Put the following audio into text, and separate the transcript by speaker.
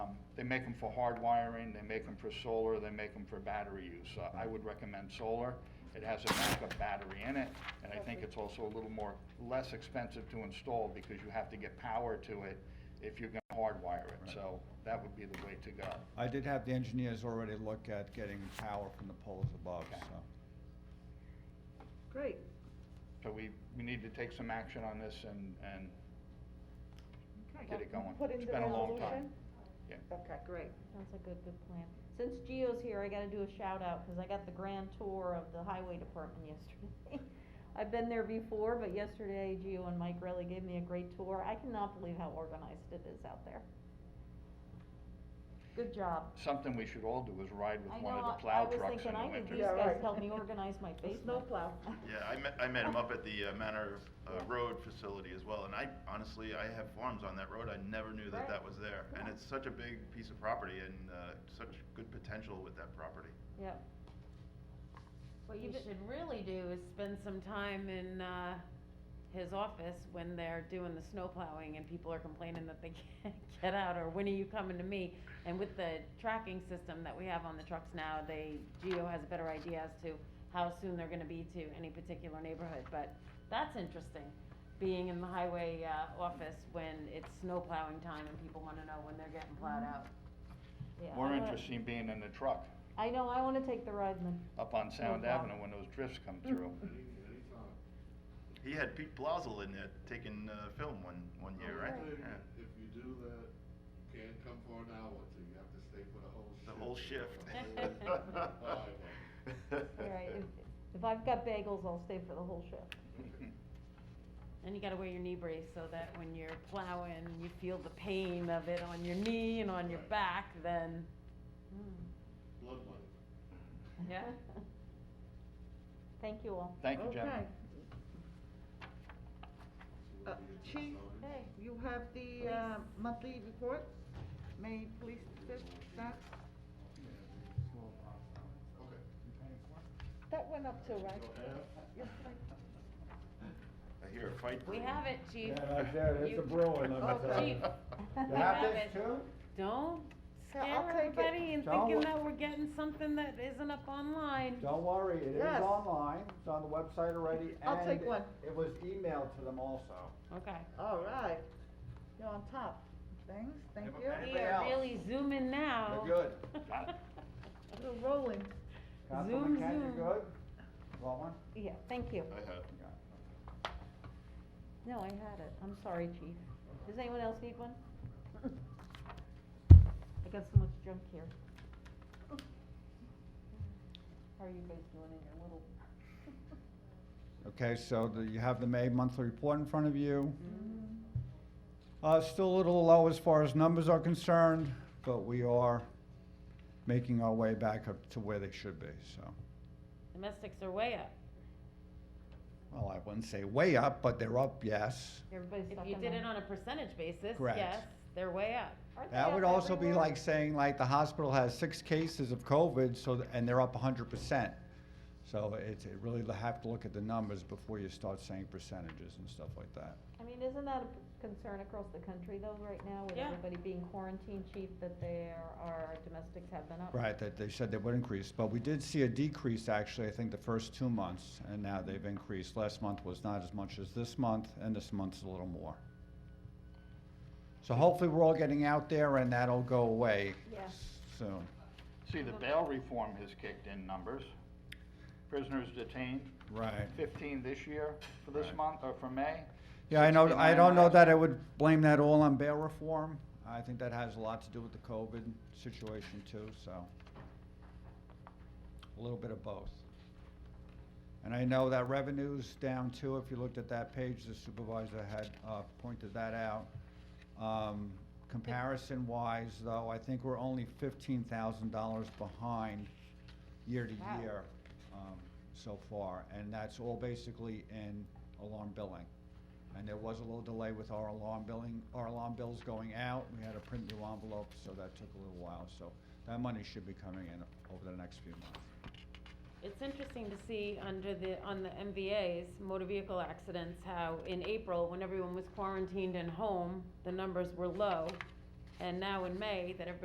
Speaker 1: Um, They make them for hard wiring, they make them for solar, they make them for battery use. Uh, I would recommend solar. It has a backup battery in it, and I think it's also a little more, less expensive to install because you have to get power to it if you're gonna hardwire it. So that would be the way to go.
Speaker 2: I did have the engineers already look at getting power from the poles above,
Speaker 1: Okay.
Speaker 2: so.
Speaker 3: Great.
Speaker 1: So we, we need to take some action on this and, and
Speaker 3: Okay,
Speaker 1: get it going.
Speaker 4: Put in
Speaker 1: It's
Speaker 4: the
Speaker 1: been a long time.
Speaker 4: resolution?
Speaker 1: Yeah.
Speaker 4: Okay.
Speaker 3: great.
Speaker 5: Sounds like a good plan. Since Gio's here, I gotta do a shout out, cause I got the grand tour of the highway department yesterday. I've been there before, but yesterday Gio and Mike really gave me a great tour. I cannot believe how organized it is out there. Good job.
Speaker 1: Something we should all do is ride with
Speaker 5: I
Speaker 1: one of the
Speaker 5: know, I-
Speaker 1: plow trucks in the
Speaker 5: I was thinking, I need
Speaker 1: winter.
Speaker 5: these
Speaker 4: Yeah,
Speaker 5: guys
Speaker 4: right.
Speaker 5: to help me organize my basement.
Speaker 3: snowplow.
Speaker 6: Yeah, I met, I met him up at the uh, Manor uh, Road facility as well, and I, honestly, I have farms on that road, I never knew that
Speaker 5: Right.
Speaker 6: that was there. And
Speaker 5: Yeah.
Speaker 6: it's such a big piece of property and uh, such good potential with that property.
Speaker 5: Yep.
Speaker 7: What you
Speaker 5: Even-
Speaker 7: should really do is spend some time in, uh, his office when they're doing the snow plowing and people are complaining that they can't get out, or when are you coming to me? And with the tracking system that we have on the trucks now, they, Geo has a better idea as to how soon they're gonna be to any particular neighborhood, but that's interesting. Being in the highway, uh, office when it's snow plowing time and people wanna know when they're getting plowed out.
Speaker 5: Yeah,
Speaker 1: More
Speaker 5: I wanna-
Speaker 1: interesting being in the truck
Speaker 5: I know, I wanna take the ride in the
Speaker 1: up on Sound
Speaker 5: plow.
Speaker 1: Avenue when those drifts come
Speaker 7: Mm.
Speaker 1: through.
Speaker 6: He had Pete Blazel in there taking uh, film one, one year, right? Yeah.
Speaker 8: If you do that, you can't come for an hour, so you have to stay for the whole shift.
Speaker 6: The whole shift.
Speaker 8: The whole hour.
Speaker 5: All right, if, if I've got bagels, I'll stay for the whole shift.
Speaker 7: And you gotta wear your knee brace so that when you're plowing, you feel the pain of it on your knee and on your
Speaker 8: Right.
Speaker 7: back, then,
Speaker 8: Blood money.
Speaker 7: yeah.
Speaker 5: Thank you all.
Speaker 1: Thank you, gentlemen.
Speaker 4: Uh, Chief, you have the, uh, monthly report, Maine Police District,
Speaker 8: Okay.
Speaker 4: that went up too, right? Yes, right.
Speaker 6: I hear a fight.
Speaker 7: We have it, chief. You-
Speaker 2: brewing,
Speaker 4: me tell you.
Speaker 7: Chief,
Speaker 2: You
Speaker 7: we
Speaker 2: have
Speaker 7: have
Speaker 2: this
Speaker 7: it.
Speaker 2: too?
Speaker 7: Don't
Speaker 4: Yeah, I'll
Speaker 7: scare
Speaker 4: take it.
Speaker 7: everybody and
Speaker 2: Don't
Speaker 7: thinking
Speaker 2: wo-
Speaker 7: that we're getting something that isn't up online.
Speaker 2: Don't worry, it is
Speaker 4: Yes.
Speaker 2: online, it's on the website already,
Speaker 4: I'll take
Speaker 2: and
Speaker 4: one.
Speaker 2: It was emailed to them also.
Speaker 7: Okay.
Speaker 4: All right, you're on top of things, thank you.
Speaker 2: Anybody
Speaker 7: We are
Speaker 2: else?
Speaker 7: really zooming
Speaker 4: Oh.
Speaker 7: now.
Speaker 2: We're good.
Speaker 4: We're rolling.
Speaker 2: Councilman
Speaker 7: Zoom,
Speaker 2: Kent, you
Speaker 7: zoom.
Speaker 2: good? Want one?
Speaker 5: Yeah, thank you.
Speaker 6: I have.
Speaker 5: No, I had it. I'm sorry, chief. Does anyone else need one? I got so much junk here. How are you guys doing in your little?
Speaker 2: Okay, so the- you have the May monthly report in front of you.
Speaker 4: Mm-hmm.
Speaker 2: Uh, Still a little low as far as numbers are concerned, but we are making our way back up to where they should be, so.
Speaker 7: Domestics are way up.
Speaker 2: Well, I wouldn't say way up, but they're up, yes.
Speaker 5: Everybody's
Speaker 7: If
Speaker 5: stuck
Speaker 7: you
Speaker 5: in
Speaker 7: did
Speaker 5: the-
Speaker 7: it on a percentage basis,
Speaker 2: Correct.
Speaker 7: yes, they're way up.
Speaker 5: Aren't they
Speaker 2: That
Speaker 5: up
Speaker 2: would also be
Speaker 5: everywhere?
Speaker 2: like saying like the hospital has six cases of COVID, so, th- and they're up hundred percent. So it's, it really have to look at the numbers before you start saying percentages and stuff like that.
Speaker 5: I mean, isn't that a p- concern across the country though, right now, with
Speaker 7: Yeah.
Speaker 5: everybody being quarantined, chief, that there are, domestics have been up?
Speaker 2: Right, that they said they would increase, but we did see a decrease actually, I think, the first two months, and now they've increased. Last month was not as much as this month, and this month's a little more. So hopefully, we're all getting out there and that'll go away
Speaker 5: Yeah.
Speaker 2: s- soon.
Speaker 1: See, the bail reform has kicked in numbers. Prisoners detained,
Speaker 2: Right.
Speaker 1: fifteen this year for this
Speaker 6: Right.
Speaker 1: month, or for May.
Speaker 2: Yeah, I know, I
Speaker 1: 69
Speaker 2: don't know
Speaker 1: last
Speaker 2: that I would blame that all on bail reform. I think that has a lot to do with the COVID situation too, so. A little bit of both. And I know that revenue's down too, if you looked at that page, the supervisor had, uh, pointed that out. Um, comparison wise though, I think we're only fifteen thousand dollars behind year
Speaker 5: Wow.
Speaker 2: to year, um, so far. And that's all basically in alarm billing. And there was a little delay with our alarm billing, our alarm bills going out. We had to print new envelopes, so that took a little while. So that money should be coming in over the next few months.
Speaker 7: It's interesting to see under the, on the MVAs, motor vehicle accidents, how in April, when everyone was quarantined and home, the numbers were low. And now in May, that everybody